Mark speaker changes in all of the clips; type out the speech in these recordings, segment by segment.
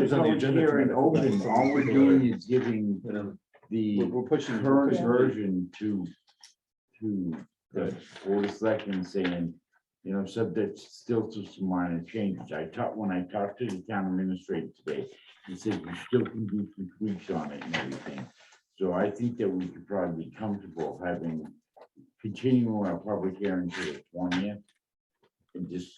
Speaker 1: things on the agenda.
Speaker 2: Public hearing open, all we're doing is giving
Speaker 1: You know,
Speaker 2: the
Speaker 1: We're we're pushing. we're
Speaker 2: current
Speaker 1: pushing-
Speaker 2: version to, to the board of selectmen saying, you know, subject still to some minor changes. I talked, when I talked to the town administrator today, he said we still can do some tweaks on it and everything. So I think that we could probably be comfortable having, continuing our public hearing to the twentieth. And just,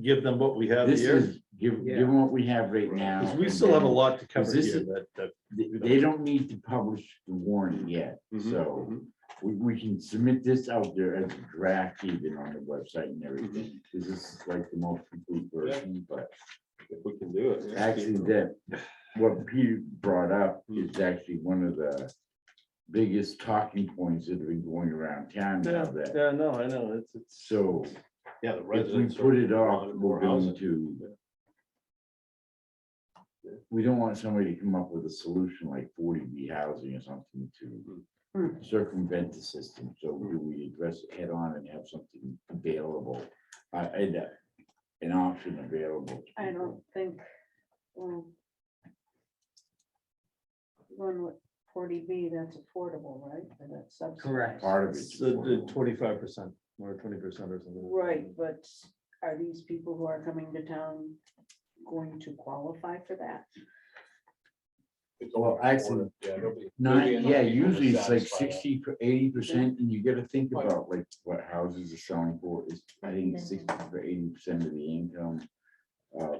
Speaker 1: Give them what we have
Speaker 2: this
Speaker 1: here,
Speaker 2: is, give, give them what we have right now.
Speaker 1: because we
Speaker 2: and
Speaker 1: still have a
Speaker 2: then-
Speaker 1: lot to
Speaker 2: Because
Speaker 1: cover
Speaker 2: this
Speaker 1: here
Speaker 2: is-
Speaker 1: that, that.
Speaker 2: they, they don't need to publish the warning yet,
Speaker 1: mhm,
Speaker 2: so
Speaker 1: mhm.
Speaker 2: we, we can submit this out there as a draft even on the website and everything.
Speaker 1: Mm-hmm.
Speaker 2: This is like the most complete version, but
Speaker 1: If we can do it. yeah.
Speaker 2: actually that, what Peter brought up
Speaker 1: Mm.
Speaker 2: is actually one of the biggest talking points that have been going around town now
Speaker 1: Yeah,
Speaker 2: that,
Speaker 1: yeah, no, I know, it's, it's.
Speaker 2: so
Speaker 1: Yeah, the
Speaker 2: if we
Speaker 1: residents.
Speaker 2: put it
Speaker 1: are
Speaker 2: off,
Speaker 1: wanting
Speaker 2: we're
Speaker 1: more
Speaker 2: going
Speaker 1: housing.
Speaker 2: to. We don't want somebody to come up with a solution like forty B housing or something to
Speaker 3: Hmm.
Speaker 2: circumvent the system, so do we address it head on and have something available? Uh, and, uh, an option available. to
Speaker 3: I
Speaker 2: people?
Speaker 3: don't think. um, Going with forty B, that's affordable, right? Or that's subsidized?
Speaker 4: Correct.
Speaker 2: Part of
Speaker 1: It's the
Speaker 2: it.
Speaker 1: twenty-five percent or twenty percent or something.
Speaker 3: Right, but are these people who are coming to town going to qualify for that?
Speaker 2: Well, actually, not, yeah, usually it's like sixty to eighty percent, and you gotta think
Speaker 1: Right.
Speaker 2: about like what houses are selling for is, I think sixty to eighty percent of the income. uh,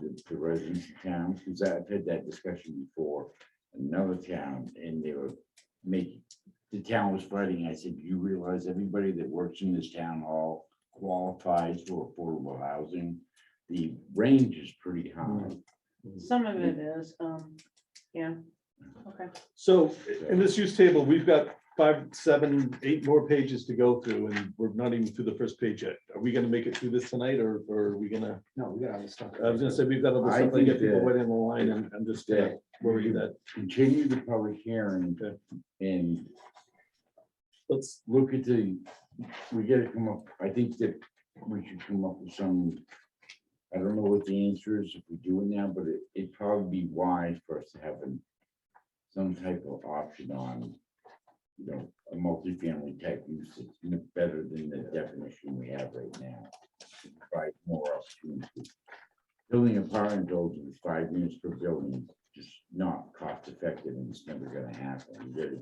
Speaker 2: The the residents of town, because I've had that discussion before, in another town, and they were making, the town was fighting, I said, you realize everybody that works in this town hall qualifies for affordable housing? The range is pretty high. Mm-hmm.
Speaker 3: Some of it is, um, yeah, okay.
Speaker 1: So in this use table, we've got five, seven, eight more pages to go through and we're not even through the first page yet. Are we gonna make it through this tonight or or are we gonna?
Speaker 4: No, we got all this stuff.
Speaker 1: I was gonna say, we've got other
Speaker 2: I
Speaker 1: stuff, like get
Speaker 2: think
Speaker 1: people
Speaker 2: that-
Speaker 1: waiting in the line and I'm just gonna
Speaker 2: that
Speaker 1: worry
Speaker 2: you-
Speaker 1: that,
Speaker 2: Continue the public hearing
Speaker 1: Okay.
Speaker 2: and
Speaker 1: let's,
Speaker 2: look at the, we gotta come up, I think that we should come up with some. I don't know what the answer is if we do it now, but it, it'd probably be wise for us to have an, some type of option on. You know, a multifamily type use that's n- better than the definition we have right now. Provide more opportunity. Building apartment buildings, with five units per building, just not cost effective and it's never gonna happen. You gotta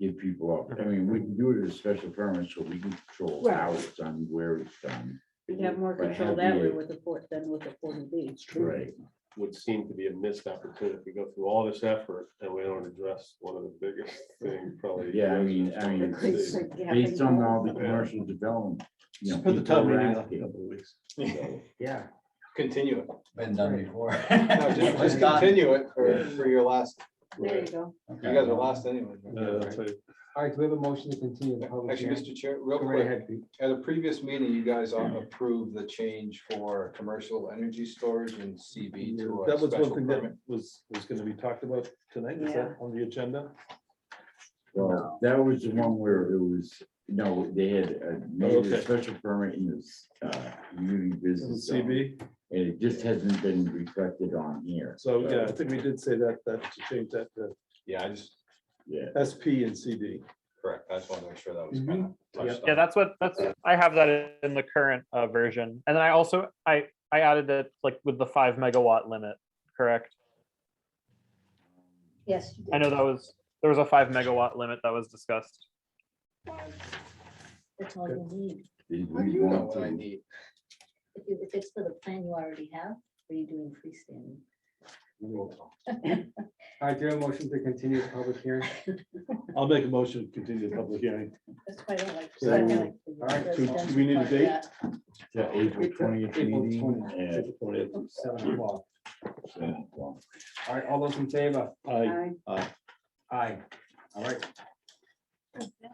Speaker 2: give people up. I mean, we can do it as a special permit, so we can control
Speaker 3: Right.
Speaker 2: how it's done, where it's done.
Speaker 3: You have more
Speaker 2: But
Speaker 3: control that way
Speaker 2: heavier.
Speaker 3: with the port than with the forty B.
Speaker 2: Right.
Speaker 5: would seem to be a missed opportunity. We go through all this effort and we don't address one of the biggest things probably.
Speaker 2: Yeah, I mean- I mean,
Speaker 5: residents want
Speaker 2: Based on all the commercial development. you know,
Speaker 1: put the
Speaker 2: people
Speaker 1: time
Speaker 2: are
Speaker 1: meeting up in a
Speaker 2: asking,
Speaker 1: couple of weeks.
Speaker 2: so,
Speaker 4: Yeah.
Speaker 6: Continue it.
Speaker 4: Been done before.
Speaker 6: No, just, just continue it for, for your last,
Speaker 3: There you
Speaker 5: Right.
Speaker 3: go.
Speaker 6: you guys are last anyway.
Speaker 1: Uh, that's right.
Speaker 4: All right, do we have a motion to continue the public
Speaker 6: Actually,
Speaker 4: hearing?
Speaker 6: Mr. Chair,
Speaker 4: Go
Speaker 6: real
Speaker 4: right
Speaker 6: quick,
Speaker 4: ahead, Pete.
Speaker 6: at a previous meeting, you guys all approved the change for commercial energy storage and CB to a
Speaker 1: That was one
Speaker 6: special
Speaker 1: thing
Speaker 6: permit.
Speaker 1: that was, was gonna be talked about tonight, is that on the agenda?
Speaker 2: Well, that was the one where it was, no, they had uh, made
Speaker 1: Okay.
Speaker 2: a special permit in this uh, community business zone, and
Speaker 4: um,
Speaker 1: CB,
Speaker 2: it just hasn't been reflected on here.
Speaker 1: so yeah, I think we did say that, that to change that to
Speaker 6: Yeah, I just,
Speaker 2: Yeah,
Speaker 1: SP and CB.
Speaker 6: correct, I just wanted to make sure that
Speaker 1: Mm-hmm.
Speaker 6: was kind of touched
Speaker 7: Yeah,
Speaker 6: on.
Speaker 7: that's what, that's, I have that in the current uh, version. And then I also, I, I added it like with the five megawatt limit, correct?
Speaker 3: Yes.
Speaker 7: I know that was, there was a five megawatt limit that was discussed.
Speaker 8: That's all you need.
Speaker 2: did
Speaker 6: How do
Speaker 2: we
Speaker 6: you know
Speaker 2: want
Speaker 6: what I
Speaker 2: to?
Speaker 6: need?
Speaker 8: If you- if it's for the plan you already have, or you are doing freestanding?
Speaker 4: All right, do you have a motion to continue the public hearing?
Speaker 1: I'll make a motion to continue the public hearing.
Speaker 8: That's why I don't like.
Speaker 1: So,
Speaker 8: residential.
Speaker 4: all right,
Speaker 1: do- do we need a date?
Speaker 2: The April twentieth
Speaker 4: April
Speaker 2: meeting.
Speaker 4: 20th.
Speaker 2: at
Speaker 4: Seven o'clock.
Speaker 2: seven o'clock.
Speaker 4: All right, all those in favor?
Speaker 1: Aye.
Speaker 4: Aye. All right,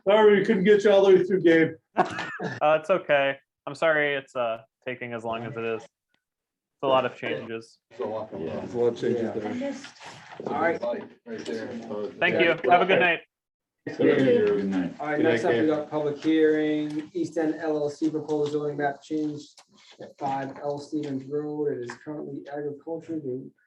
Speaker 1: Sorry, we couldn't get you all the way through, Gabe.
Speaker 7: Uh, it's okay. I'm sorry it's, uh, taking as long as it is. It's a lot of changes.
Speaker 6: It's a lot going on.
Speaker 1: There's a lot of changes
Speaker 4: Yeah.
Speaker 1: there.
Speaker 8: I'm just
Speaker 4: all right,
Speaker 6: Right there.
Speaker 7: Thank you. Have a good night.
Speaker 2: Yeah, good night.
Speaker 4: all right,
Speaker 1: Good night,
Speaker 4: next up, we
Speaker 1: Dave.
Speaker 4: got public hearing, East End LLC proposed zoning map change at five L Stevens Road. It is currently agriculture, the